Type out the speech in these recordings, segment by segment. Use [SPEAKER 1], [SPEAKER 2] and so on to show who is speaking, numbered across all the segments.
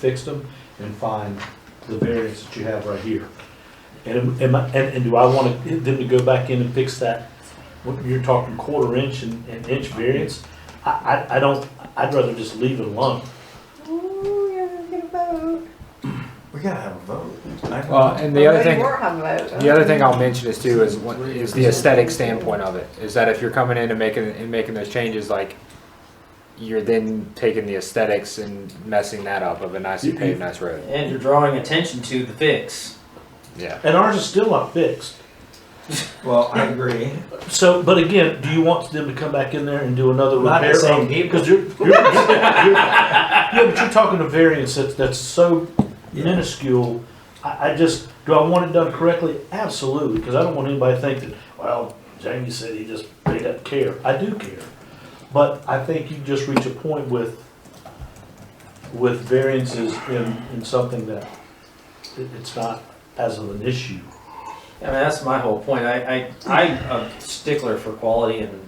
[SPEAKER 1] fixed them and find the variance that you have right here. And, am I- and, and do I want to- them to go back in and fix that? What, you're talking quarter inch and, and inch variance? I, I, I don't, I'd rather just leave it alone.
[SPEAKER 2] Ooh, you're gonna get a vote.
[SPEAKER 3] We gotta have a vote.
[SPEAKER 4] Well, and the other
[SPEAKER 2] Maybe
[SPEAKER 4] thing,
[SPEAKER 2] We're having a vote.
[SPEAKER 4] the other thing I'll mention is too is what- is the aesthetic standpoint of it. Is that if you're coming in and making and making those changes, like you're then taking the aesthetics and messing that up of a nicely
[SPEAKER 1] You-
[SPEAKER 4] paved, nice road.
[SPEAKER 5] And you're drawing attention to the fix.
[SPEAKER 4] Yeah.
[SPEAKER 1] And ours is still not fixed.
[SPEAKER 3] Well, I agree.
[SPEAKER 1] So, but again, do you want them to come back in there and do another
[SPEAKER 3] Not the
[SPEAKER 1] repair?
[SPEAKER 3] same
[SPEAKER 1] Because you're, you're, you're, yeah, but you're talking a variance that's, that's so minuscule. I, I just, do I want it done correctly? Absolutely, because I don't want anybody to think that, well, Jamie said he just, he doesn't care. I do care. But I think you just reach a point with, with variances in, in something that it- it's not as of an issue.
[SPEAKER 5] I mean, that's my whole point. I, I, I'm a stickler for quality and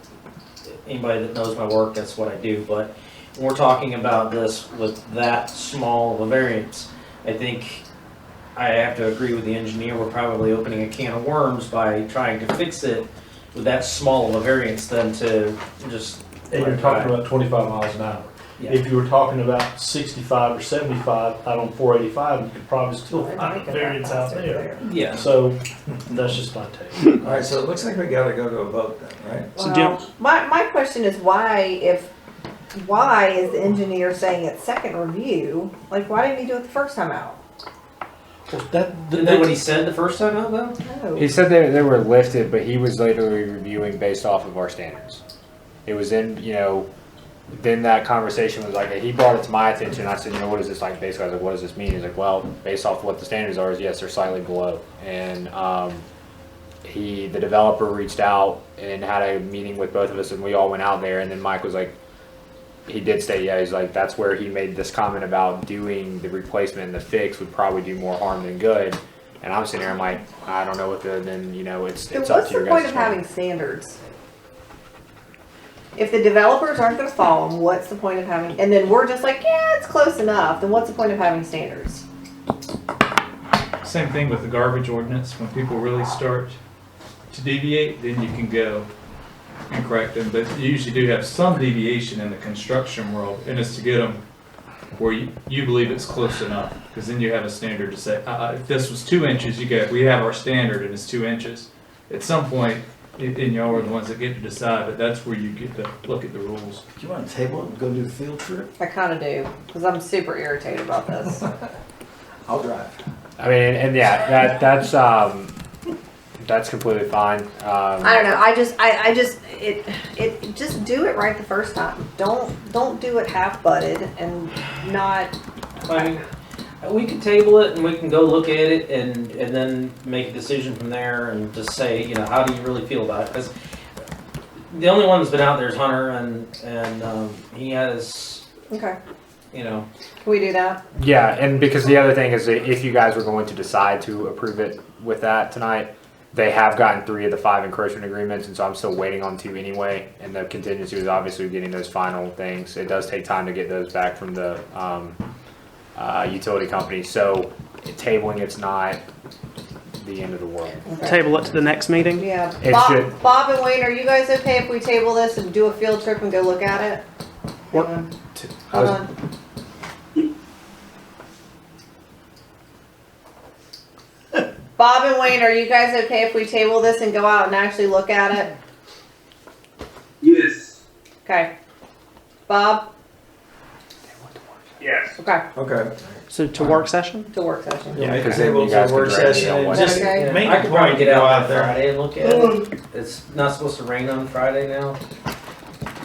[SPEAKER 5] anybody that knows my work, that's what I do. But when we're talking about this with that small of a variance, I think I have to agree with the engineer. We're probably opening a can of worms by trying to fix it with that small of a variance than to just.
[SPEAKER 1] And you're talking about twenty-five miles an hour.
[SPEAKER 5] Yeah.
[SPEAKER 1] If you were talking about sixty-five or seventy-five out on four eighty-five, you could probably still
[SPEAKER 2] Oh, I think
[SPEAKER 1] find
[SPEAKER 2] it's
[SPEAKER 1] variance out there.
[SPEAKER 5] Yeah.
[SPEAKER 1] So that's just my take.
[SPEAKER 3] All right, so it looks like we gotta go to a vote then, right?
[SPEAKER 1] So Jim-
[SPEAKER 2] Well, my, my question is why if, why is the engineer saying it's second review? Like, why didn't he do it the first time out?
[SPEAKER 1] Well, that-
[SPEAKER 5] Isn't that what he
[SPEAKER 1] that-
[SPEAKER 5] said the first time out though?
[SPEAKER 2] No.
[SPEAKER 4] He said they they were lifted, but he was literally reviewing based off of our standards. It was in you know. Then that conversation was like he brought it to my attention. I said, you know, what is this like? Basically, I was like, what does this mean? He's like, well, based off what the standards are, is yes, they're slightly below. And um, he the developer reached out and had a meeting with both of us and we all went out there and then mike was like he did say yeah he's like that's where he made this comment about doing the replacement and the fix would probably do more harm than good and i'm sitting there i'm like i don't know what the then you know it's
[SPEAKER 2] Then
[SPEAKER 4] it's up
[SPEAKER 2] what's
[SPEAKER 4] to your
[SPEAKER 2] the point
[SPEAKER 4] guys
[SPEAKER 2] of having standards? If the developers aren't gonna follow them, what's the point of having, and then we're just like, yeah, it's close enough, then what's the point of having standards?
[SPEAKER 6] Same thing with the garbage ordinance, when people really start to deviate, then you can go and correct them, but you usually do have some deviation in the construction world, and it's to get them where you, you believe it's close enough, because then you have a standard to say, uh, uh, if this was two inches, you go, we have our standard and it's two inches. At some point, and, and y'all are the ones that get to decide, but that's where you get to look at the rules.
[SPEAKER 3] Do you wanna table it and go do a field trip?
[SPEAKER 2] I kinda do, cause I'm super irritated about this.
[SPEAKER 3] I'll drive.
[SPEAKER 4] i mean and, yeah that that's um that's completely fine um
[SPEAKER 2] I don't know. I just, I, I just, it, it, just do it right the first time. Don't, don't do it half-butted and not,
[SPEAKER 5] I mean, we can table it and we can go look at it and, and then make a decision from there and just say, you know, how do you really feel about it? Because the only one that's been out there is Hunter and, and, um, he has,
[SPEAKER 2] okay,
[SPEAKER 5] you know,
[SPEAKER 2] can we do that?
[SPEAKER 4] Yeah, and because the other thing is that if you guys were going to decide to approve it with that tonight, they have gotten three of the five encroachment agreements, and so I'm still waiting on two anyway. And the contingency was obviously getting those final things. It does take time to get those back from the um, uh, utility company, so tabling it's not the end of the world.
[SPEAKER 2] Okay.
[SPEAKER 7] table it to the next meeting?
[SPEAKER 2] Yeah.
[SPEAKER 4] It
[SPEAKER 2] Bob,
[SPEAKER 4] should-
[SPEAKER 2] Bob and Wayne, are you guys okay if we table this and do a field trip and go look at it?
[SPEAKER 4] What-
[SPEAKER 2] Hang on,
[SPEAKER 4] I
[SPEAKER 2] Hold
[SPEAKER 4] was-
[SPEAKER 2] on. Bob and Wayne, are you guys okay if we table this and go out and actually look at it?
[SPEAKER 8] Yes.
[SPEAKER 2] Okay. Bob?
[SPEAKER 8] Yes.
[SPEAKER 2] Okay,
[SPEAKER 3] Okay.
[SPEAKER 7] So to work session?
[SPEAKER 2] to work session.
[SPEAKER 4] Yeah,
[SPEAKER 3] Make a
[SPEAKER 4] 'cause then
[SPEAKER 3] table
[SPEAKER 4] you
[SPEAKER 3] to a
[SPEAKER 4] guys can
[SPEAKER 3] work
[SPEAKER 4] direct me
[SPEAKER 3] session
[SPEAKER 4] on
[SPEAKER 3] and
[SPEAKER 4] what-
[SPEAKER 3] just-
[SPEAKER 2] Okay.
[SPEAKER 5] you know,
[SPEAKER 3] Make
[SPEAKER 5] I
[SPEAKER 3] a
[SPEAKER 5] could probably
[SPEAKER 3] point
[SPEAKER 5] get
[SPEAKER 3] to go
[SPEAKER 5] out
[SPEAKER 3] out
[SPEAKER 5] on
[SPEAKER 3] there.
[SPEAKER 5] Friday and look at it. It's not supposed to rain on Friday now,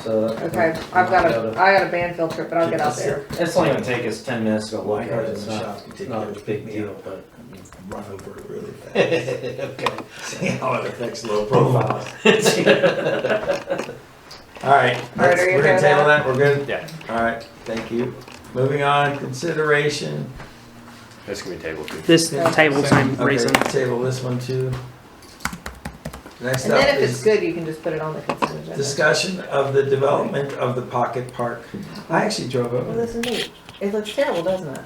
[SPEAKER 5] so.
[SPEAKER 2] Okay, I've got a, I got a band field trip, but I'll get out there.
[SPEAKER 5] It's only gonna take us ten minutes to go look
[SPEAKER 3] My
[SPEAKER 5] at
[SPEAKER 3] car's
[SPEAKER 5] it.
[SPEAKER 3] in
[SPEAKER 5] It's
[SPEAKER 3] the
[SPEAKER 5] not,
[SPEAKER 3] shop. You
[SPEAKER 5] it's
[SPEAKER 3] take
[SPEAKER 5] not
[SPEAKER 3] care
[SPEAKER 5] a
[SPEAKER 3] of
[SPEAKER 5] big
[SPEAKER 3] me.
[SPEAKER 5] deal, but.
[SPEAKER 3] Run over it really fast.
[SPEAKER 5] Okay.
[SPEAKER 3] See how it affects low profiles. All right,
[SPEAKER 2] All right,
[SPEAKER 3] that's-
[SPEAKER 2] are you
[SPEAKER 3] we're gonna
[SPEAKER 2] okay with
[SPEAKER 3] table that, we're good?
[SPEAKER 4] Yeah.
[SPEAKER 3] All right, thank you. Moving on, consideration.
[SPEAKER 4] This can be tabled too.
[SPEAKER 7] This table same
[SPEAKER 3] Okay,
[SPEAKER 7] reason.
[SPEAKER 3] Table this one too. Next
[SPEAKER 2] And
[SPEAKER 3] up
[SPEAKER 2] then if it's
[SPEAKER 3] is
[SPEAKER 2] good, you can just put it on the consent agenda.
[SPEAKER 3] discussion of the development of the pocket park. I actually drove
[SPEAKER 2] Well,
[SPEAKER 3] over.
[SPEAKER 2] this is neat. It looks terrible, doesn't it?